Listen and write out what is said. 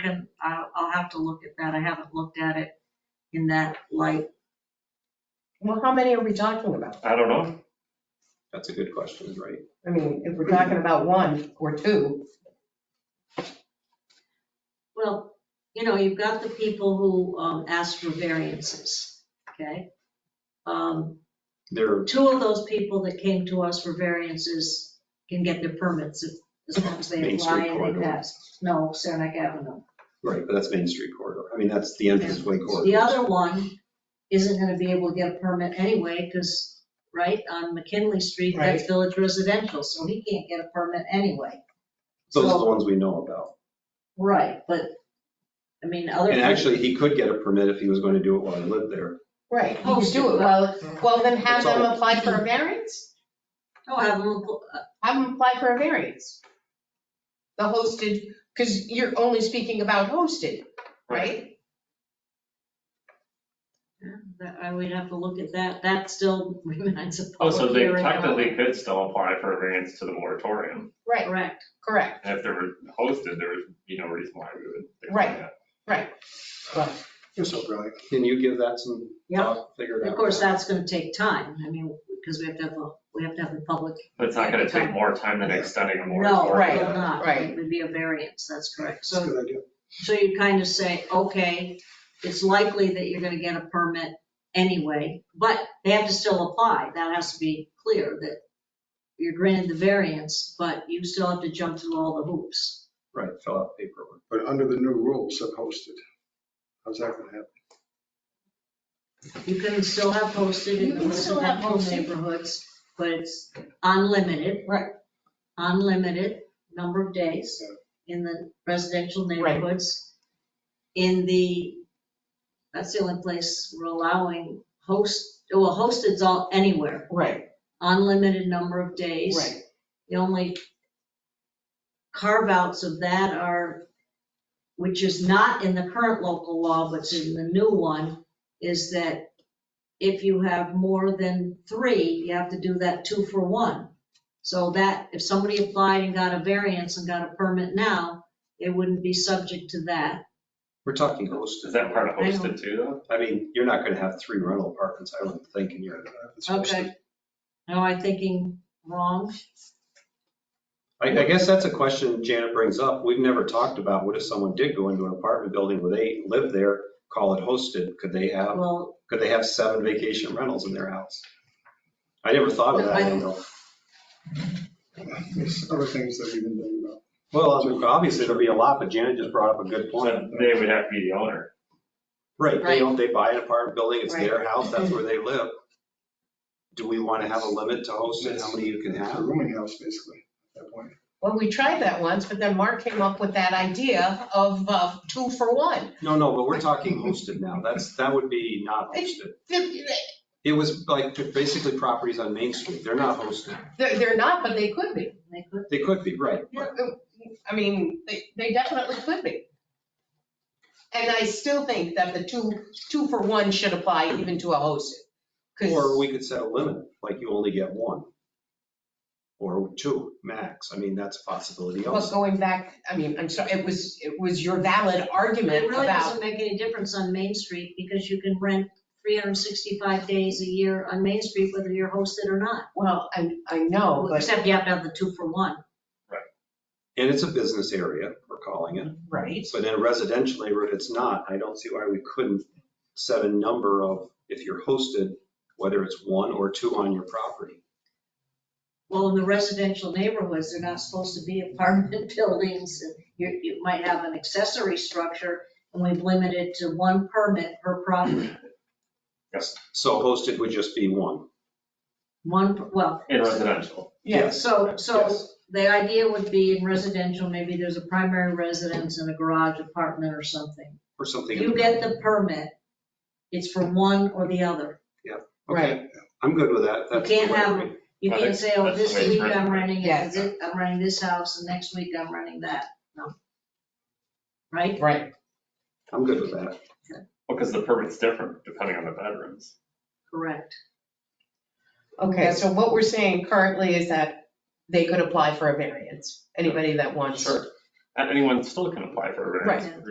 can, I'll, I'll have to look at that. I haven't looked at it in that light. Well, how many are we talking about? I don't know. That's a good question, right? I mean, if we're talking about one or two, Well, you know, you've got the people who um, ask for variances, okay? Um, There, Two of those people that came to us for variances can get their permits if- as long as they Main apply Street and corridor. they pass. No, Saranac Avenue. right, but that's Main Street corridor. I mean, that's the entrance way corridor. The other one isn't gonna be able to get a permit anyway, because, right, on McKinley Street, that's village residential, so he can't get a permit anyway. Those are the ones we know about. Right, but, I mean, other. And actually, he could get a permit if he was going to do it while he lived there. right, you could do it, well, well, then have them apply for a variance, Oh, have them, uh, have them apply for a variance. The hosted, because you're only speaking about hosted, right? that- I would have to look at that, that still remains a Oh, public so they hearing. technically could still apply for a variance to the moratorium. Right, Correct, correct, And if they were hosted, there would be no reason why we would. think Right. that. You're so brilliant. Can you give that some yeah, thought, figure it out? of course, that's gonna take time, I mean, because we have to have, a we have to have a public. But it's not gonna take more time than extending a No, moratorium. it will not. right. It would be a variance, that's correct, That's a so, good idea. so you kind of say, okay, it's likely that you're gonna get a permit anyway, but they have to still apply, that has to be clear, that you're granted the variance, but you still have to jump through all the hoops. Right, fill out paperwork. But under the new rules, they're posted. How's that gonna happen? You can still have posted You in can illicit still have home posted. neighborhoods, but it's unlimited. Right. Unlimited number of days in the residential neighborhoods. In the, that's the only place we're allowing host, well, hosted's all, anywhere, right, unlimited number of days. right, The only carve outs of that are, which is not in the current local law, but's in the new one, is that if you have more than three, you have to do that two for one. So that, if somebody applied and got a variance and got a permit now, it wouldn't be subject to that. We're talking Is hosted. that part of I know. hosted too, though? I mean, you're not going to have three rental apartments, I wouldn't think, in your. It's posted. Am I thinking wrong? I, I guess that's a question Janet brings up. We've never talked about, what if someone did go into an apartment building where they live there, call it hosted? Could they have, Well, could they have seven vacation rentals in their house? I never thought of that angle. There's other things that we've been doing about. Well, obviously there'll be a lot, but Janet just brought up a good point. So They would have to be the owner. Right, they own, they buy an apartment building, it's their house, that's Mhm. where they live. Do we want to have a limit to hosted, how many you can It's a have? rooming house, basically, at that point. well, we tried that once, but then Mark came up with that idea of, uh two for one. No, no, but we're talking hosted now, that's, that would be not hosted. They're, It was like basically properties on Main Street, they're not hosted. they're not, but they could be. they could, They could be, right. I mean, they, they definitely could be. And I still think that the two, two for one should apply even to a hosted. 'cause- Or we could set a limit, like you only get one. Or two, max. I mean, that's a possibility But also. going back, I mean, I'm sorry, it was, it was your valid argument It really about, doesn't make any difference on Main Street because you can rent 365 days a year on Main Street whether you're hosted or not. well, I, I know, Oh, but, Except you have to have the two for one. And it's a business area, we're calling it. right? But in a residential neighborhood, it's not. I don't see why we couldn't set a number of, if you're hosted, whether it's one or two on your property. Well, in the residential neighborhoods, they're not supposed to be apartment buildings. and You, you might have an accessory structure and we've limited to one permit per property. Yes. So hosted would just be one. One, per- well, In residential. Yes. so, so Yes. the idea would be in residential, maybe there's a primary residence and a garage apartment or something. Or something. You get the permit, it's for one or the other. Okay, I'm good with that. That's can't the way have- we- You Right, can't say, oh, that's this the way it's week written. I'm renting, Yeah. it, thi- I'm renting this house, and next week I'm renting that, no. Right? Right, I'm good with that. Because the permit's different depending on the bedrooms. Correct. okay, so what we're saying currently is that they could apply for a variance, anybody that wants. Sure. And anyone still can apply for a Right. variance.